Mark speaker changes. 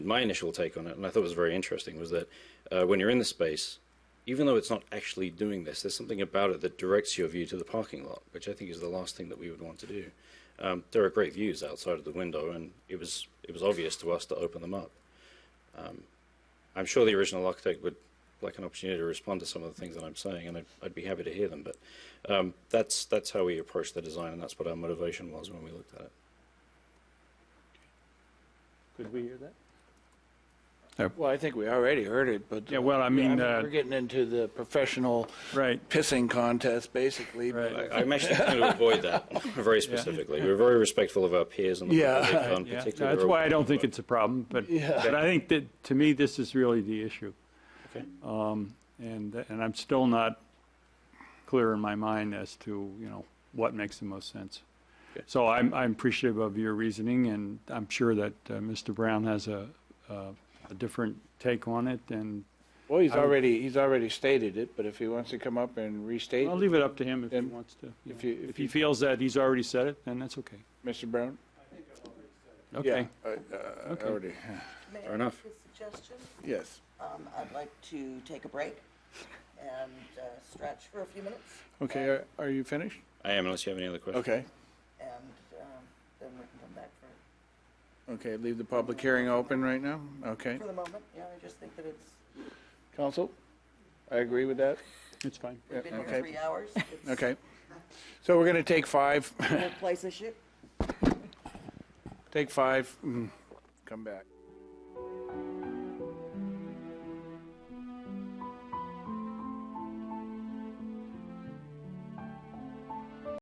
Speaker 1: my initial take on it, and I thought it was very interesting, was that uh, when you're in the space, even though it's not actually doing this, there's something about it that directs your view to the parking lot, which I think is the last thing that we would want to do. Um, there are great views outside of the window, and it was it was obvious to us to open them up. Um, I'm sure the original architect would like an opportunity to respond to some of the things that I'm saying, and I'd, I'd be happy to hear them. But um, that's that's how we approached the design, and that's what our motivation was when we looked at it.
Speaker 2: Could we hear that?
Speaker 3: Well, I think we already heard it, but.
Speaker 2: Yeah, well, I mean, uh,
Speaker 3: We're getting into the professional
Speaker 2: Right.
Speaker 3: pissing contest, basically. but-
Speaker 2: Right.
Speaker 1: I- I'm actually trying to avoid that very specifically. We're very respectful of our peers and the
Speaker 3: Yeah.
Speaker 1: work that they've done,
Speaker 2: Yeah,
Speaker 1: particularly.
Speaker 2: that's
Speaker 1: their
Speaker 2: why I
Speaker 1: open-
Speaker 2: don't think it's a problem, but,
Speaker 3: Yeah.
Speaker 2: but I think that, to me, this is really the issue.
Speaker 1: Okay.
Speaker 2: And, and I'm still not clear in my mind as to, you know, what makes the most sense.
Speaker 1: Okay.
Speaker 2: So I'm, I'm appreciative of your reasoning, and I'm sure that uh, Mr. Brown has a, a a different take on it, and
Speaker 3: Well, he's already, he's already stated it, but if he wants to come up and restate,
Speaker 2: I'll leave it up to him if he
Speaker 3: And
Speaker 2: wants to.
Speaker 3: if
Speaker 2: yeah.
Speaker 3: you- if
Speaker 2: If he
Speaker 3: you-
Speaker 2: feels that he's already said it, then that's okay.
Speaker 3: Mr. Brown?
Speaker 2: Okay.
Speaker 3: Yeah, I- I already,
Speaker 4: May
Speaker 1: Fair
Speaker 4: I
Speaker 1: enough.
Speaker 4: make a suggestion?
Speaker 3: yes.
Speaker 4: Um, I'd like to take a break and uh, stretch for a few minutes.
Speaker 3: Okay, are- are you finished?
Speaker 1: I am, unless you have any other questions.
Speaker 3: Okay,
Speaker 4: And um, then we can come back for,
Speaker 3: okay, leave the public hearing open right now? Okay.
Speaker 4: for the moment. Yeah, I just think that it's,
Speaker 3: Counsel, I agree with that?
Speaker 2: It's fine.
Speaker 4: we've been
Speaker 3: okay.
Speaker 4: here three hours. It's
Speaker 3: Okay. So we're going to take five,
Speaker 4: a workplace issue.
Speaker 3: take five, mm, come back.